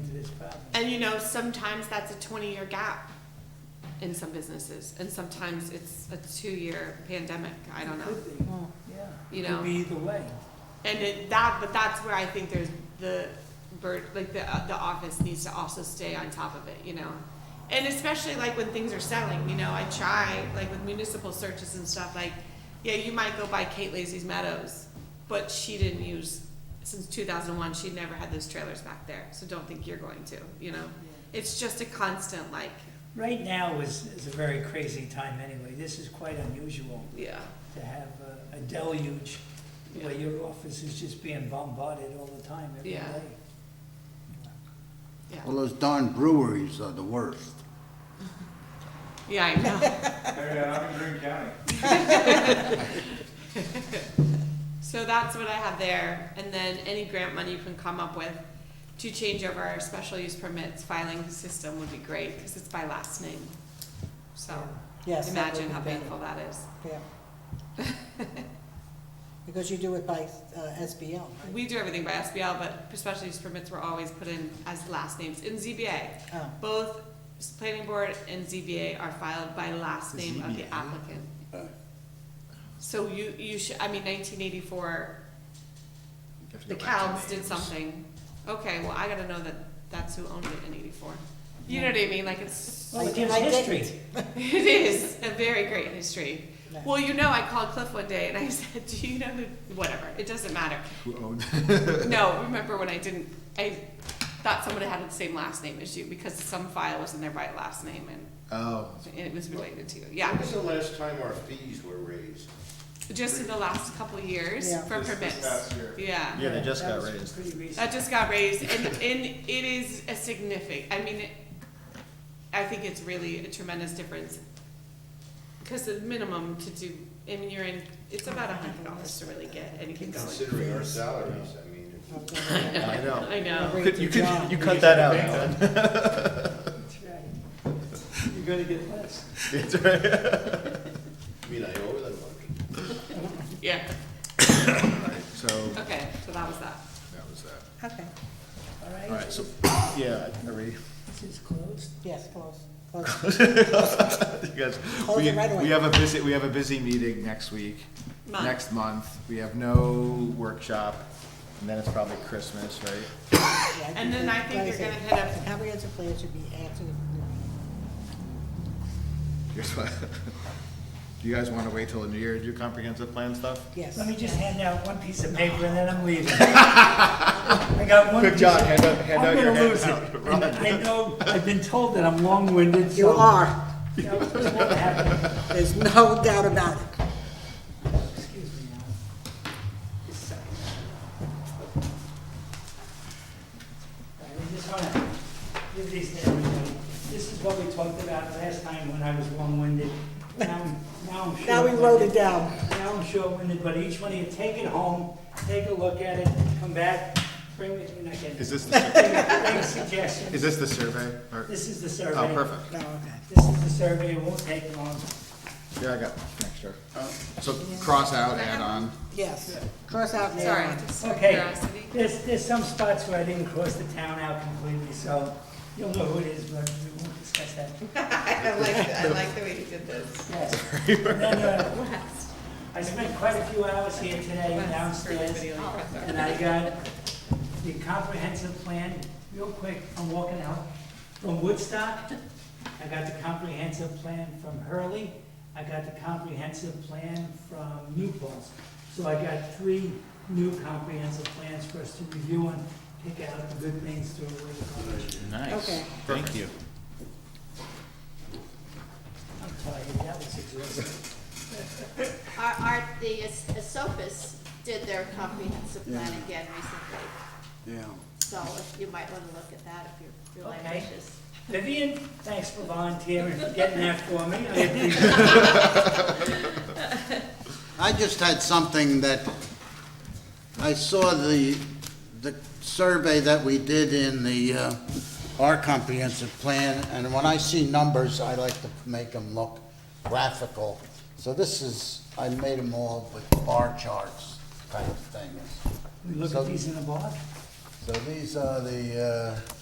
serious problem. And you know, sometimes that's a twenty-year gap in some businesses, and sometimes it's a two-year pandemic, I don't know. Could be, yeah. You know. Could be either way. And it, that, but that's where I think there's the bird, like the, the office needs to also stay on top of it, you know? And especially like when things are selling, you know, I try, like with municipal searches and stuff, like, yeah, you might go buy Kate Lazy's Meadows, but she didn't use, since two thousand one, she never had those trailers back there, so don't think you're going to, you know? It's just a constant like, Right now is, is a very crazy time anyway. This is quite unusual yeah, to have a- a deluge where yeah, your office is just being bombarded all the time, every Yeah. day. yeah, Well, those darn breweries are the worst. yeah, I know. Hey, I'm in Green County. So that's what I have there, and then any grant money you can come up with to change over our special use permits filing system would be great, because it's by last name. So, Yes. that would imagine be how better. painful that is. Yeah. Because you do it by uh, SBL, right? We do everything by SBL, but special use permits were always put in as last names in ZBA. Oh, Both planning board and ZBA are filed by last name of the ZBA? applicant. Uh, So you, you should, I mean, nineteen eighty-four, the cows did something. Okay, well, I gotta know that that's who owned it in eighty-four. You know what I mean? Like it's, Well, I- it gives I didn't. history. it is a very great history. no. Well, you know, I called Cliff one day and I said, do you know who, whatever, it doesn't matter. Who owns? No, remember when I didn't, I thought someone had the same last name issue because some file was in there by last name and Oh. it was related to, When yeah. was the last time our fees were raised? Just in the last couple of years Yeah. for This- this permits. past year. Yeah. Yeah, they just That got was raised. Pretty recent. That just got raised, and, and it is a significant, I mean, it- I think it's really a tremendous difference. Cause the minimum to do, I mean, you're in, it's about a hundred dollars to really get anything going. Considering our salaries, I mean, I'll if- go with that. I know. I I'll know, bring it Could- to You could, John. Oh. you cut that out, Alan. That's right. You're gonna get less. That's right. I mean, I owe them money. yeah, So, okay, so that was that. that was that. Okay, All All right, right, so, yeah, are we, this is closed. yes, close, close. you guys, Close we, it right away. we have a busy, we have a busy meeting next week, Month. next month. We have no workshop, and then it's probably Christmas, right? Yeah, I And then we- I think like you're said, gonna hit up- Comprehensive plan should be answered. Here's what- Do you guys want to wait till the new year to do comprehensive plan stuff? Yes. Let me just hand out one piece of paper and then I'm leaving. I got one Good piece job, of- hand out, hand out your I'm gonna lose hand it. out. And I know, I've been told that I'm long-winded, so. You are, You know, it's what happened. there's no doubt about it. Excuse me now. Just a second. All right, I just wanna give these to everybody. This is what we talked about last time when I was long-winded. Now, now I'm short. Now we wrote it down. Now I'm short-winded, but each one of you, take it home, take a look at it, come back, bring it, and I can, Is this, the- bring suggestions. is this the survey? or- This is the Oh, survey. perfect. No, okay. This is the survey, it won't take long. Yeah, I got an extra. So cross out, add on. Yes, cross out and add Sorry, on. just Okay, curiosity. there's, there's some spots where I didn't cross the town out completely, so you'll know who it is, but we won't discuss that. I like, I like the way you did this. Yes. And then, uh, Last, I spent quite a few hours here today last, for downstairs, video you put and I got the comprehensive plan, real quick, I'm walking out, from Woodstock. I got the comprehensive plan from Hurley, I got the comprehensive plan from New Paltz. So I got three new comprehensive plans for us to review and pick out the good things to avoid. Okay. Thank you. I'm tired, that was exhausting. Our, our, the As- Asopus did their comprehensive plan again recently, Yeah. so if you might wanna look at that if you're really Okay. ambitious. Vivian, thanks for volunteering, for getting that for me, I appreciate it. I just had something that, I saw the, the survey that we did in the, uh, our comprehensive plan, and when I see numbers, I like to make them look graphical. So this is, I made them all with bar charts kind of things. We look So- at these in a box. So these are the, uh,